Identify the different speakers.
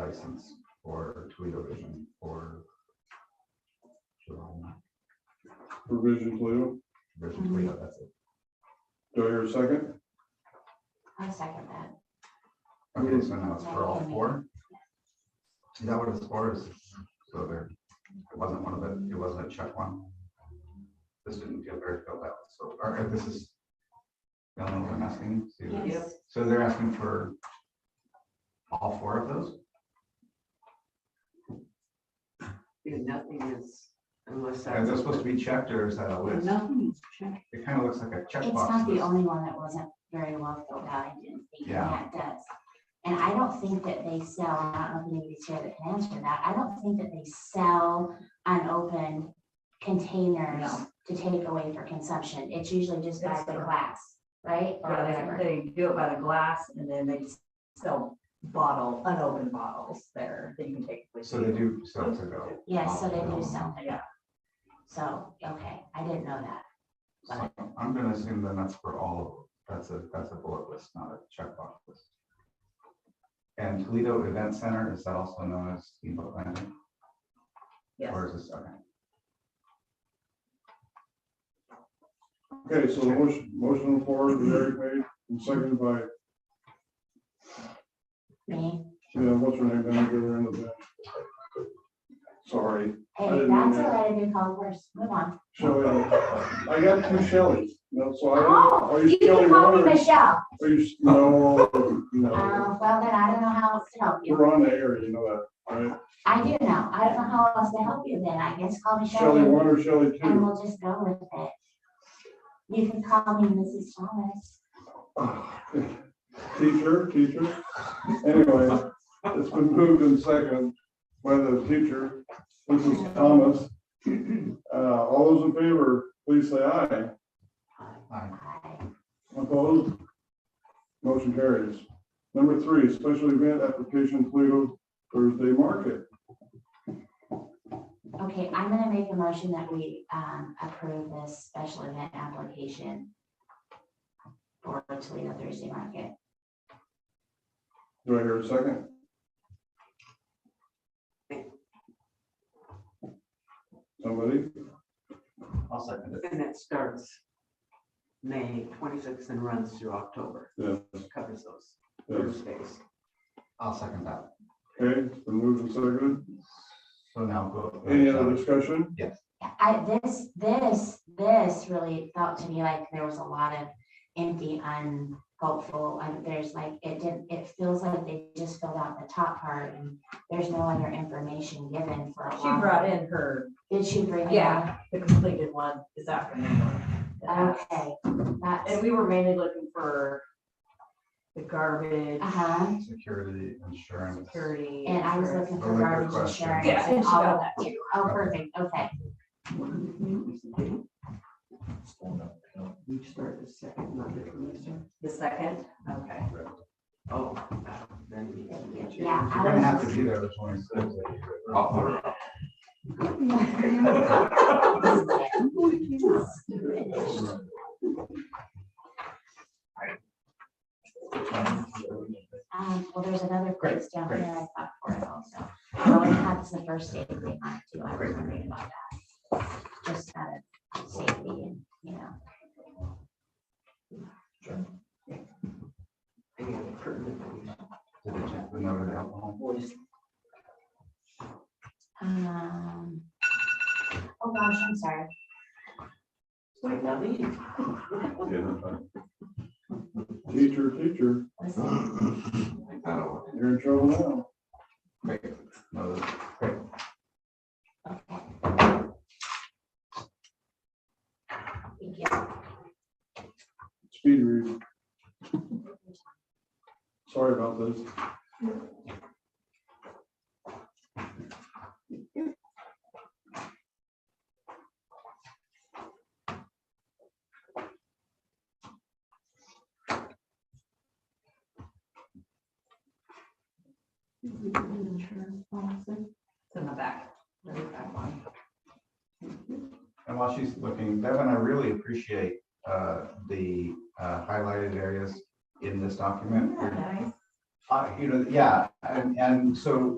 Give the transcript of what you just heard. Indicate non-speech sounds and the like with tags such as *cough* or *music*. Speaker 1: license for Toledo Vision for Jerome
Speaker 2: Provision Toledo.
Speaker 1: Vision Toledo, that's it.
Speaker 2: Do I hear a second?
Speaker 3: I second that.
Speaker 1: Okay, so now it's for all four? Is that what it's for? Is So there, it wasn't one of the, it wasn't a check one? This didn't feel very filled out, so, all right, this is. Y'all know what I'm asking? So-
Speaker 3: Yes.
Speaker 1: So they're asking for all four of those?
Speaker 4: Because nothing is unless.
Speaker 1: Is that supposed to be checked or is that a list?
Speaker 4: Nothing is checked.
Speaker 1: It kind of looks like a
Speaker 3: It's not
Speaker 1: checkbox.
Speaker 3: the
Speaker 1: list.
Speaker 3: only one that wasn't very well filled out, I didn't think
Speaker 1: Yeah.
Speaker 3: that does. And I don't think that they sell, I don't know if anybody's here that can answer that, I don't think that they sell unopened containers
Speaker 4: No.
Speaker 3: to take away for consumption, it's usually just by
Speaker 5: That's
Speaker 3: the
Speaker 5: correct.
Speaker 3: glass, right? Or
Speaker 5: Yeah,
Speaker 3: whatever.
Speaker 5: they, they do it by the glass and then they sell bottle, unopened bottles there that you can take with
Speaker 1: So they
Speaker 5: you.
Speaker 1: do sell to go.
Speaker 3: Yeah, so they do sell,
Speaker 5: Yeah,
Speaker 3: so, okay, I didn't know that.
Speaker 1: So I'm gonna assume then that's for all of, that's a, that's a bullet list, not a checkbox list. And Toledo Event Center, is that also known as Steamboat Landing?
Speaker 5: yes.
Speaker 1: Or is this, okay,
Speaker 2: Okay, so the motion, motion on the floor, that Eric made and seconded by, uh,
Speaker 3: Me,
Speaker 2: yeah, what's her name, down at the other end of the bench? Sorry, I
Speaker 3: hey,
Speaker 2: didn't know
Speaker 3: that's
Speaker 2: that.
Speaker 3: all right, I did call first, move on.
Speaker 2: Shelley, I got two Shelleys, no, so I.
Speaker 3: Oh,
Speaker 2: are
Speaker 3: You
Speaker 2: Shelley
Speaker 3: can call me
Speaker 2: one or-
Speaker 3: Michelle,
Speaker 2: Are you, no, no,
Speaker 3: uh, well, then I don't know how else to help you.
Speaker 2: we're on the air, you know that, right?
Speaker 3: I do know. I don't know how else to help you then. I guess call me
Speaker 2: Shelley
Speaker 3: Shelley
Speaker 2: one or Shelley
Speaker 3: and
Speaker 2: two?
Speaker 3: we'll just go with it. You can call me Mrs. Thomas.
Speaker 2: *sighs* Teacher, teacher, anyway, it's been moved in second by the teacher, Mrs. Thomas. *clears throat* Uh, all those in favor, please say aye.
Speaker 1: Aye.
Speaker 3: Hi.
Speaker 2: Opposed? Motion carries. Number three, special event application Toledo Thursday Market.
Speaker 3: Okay, I'm gonna make a motion that we um approve this special event application for Toledo Thursday Market.
Speaker 2: Do I hear a second? Somebody?
Speaker 1: I'll second it.
Speaker 4: And it starts May twenty-sixth and runs through October.
Speaker 2: Yeah.
Speaker 4: Covers those
Speaker 2: Yes.
Speaker 4: Thursdays.
Speaker 1: I'll second that.
Speaker 2: Okay, it's been moved and seconded.
Speaker 1: So now go.
Speaker 2: Any other discussion?
Speaker 3: I, this, this, this really felt to me like there was a lot of empty, unhopeful, and there's like, it didn't, it feels like they just filled out the top part and there's no other information given for a
Speaker 5: She
Speaker 3: while.
Speaker 5: brought in her,
Speaker 3: Did she bring? it
Speaker 5: Yeah.
Speaker 3: up?
Speaker 5: the completed one this afternoon.
Speaker 3: Okay,
Speaker 5: And
Speaker 3: that's,
Speaker 5: we were mainly looking for the garbage,
Speaker 3: uh-huh,
Speaker 1: Security insurance.
Speaker 5: security.
Speaker 3: and I was
Speaker 5: insurance.
Speaker 3: looking
Speaker 1: Those
Speaker 3: for
Speaker 1: are good
Speaker 3: garbage
Speaker 1: questions.
Speaker 3: insurance.
Speaker 5: Yeah, and
Speaker 3: and
Speaker 5: she
Speaker 3: all
Speaker 5: got
Speaker 3: of-
Speaker 5: that too.
Speaker 3: Oh, perfect, okay, mm-hmm.
Speaker 4: We start the second Monday from the start.
Speaker 5: The second, okay.
Speaker 4: Oh, that- then we need to get you.
Speaker 3: yeah.
Speaker 1: You're
Speaker 3: I
Speaker 1: gonna
Speaker 3: was-
Speaker 1: have to be there the twenty-sixth.
Speaker 2: Oh,
Speaker 1: I'll put her up.
Speaker 3: Um, well, there's another
Speaker 1: Great,
Speaker 3: place down
Speaker 1: great.
Speaker 3: here I thought for it also. Oh, and that's the first date they might do. I was
Speaker 1: Great.
Speaker 3: wondering about that. Just out of safety and, you know.
Speaker 4: Any other pertinent things?
Speaker 1: Did they check the note of alcohol?
Speaker 4: Voice.
Speaker 3: Um, oh gosh, I'm sorry.
Speaker 4: Wait, now leave.
Speaker 2: Teacher, teacher,
Speaker 3: Listen,
Speaker 1: Take that away.
Speaker 2: you're in trouble now.
Speaker 1: Great. No, great.
Speaker 3: okay. Thank you.
Speaker 2: Speed reading. Sorry about this.
Speaker 5: It's in the back, very back one.
Speaker 1: And while she's looking, Devin, I really appreciate uh, the uh, highlighted areas in this document.
Speaker 5: Isn't that nice?
Speaker 1: Uh, You know, yeah, and, and so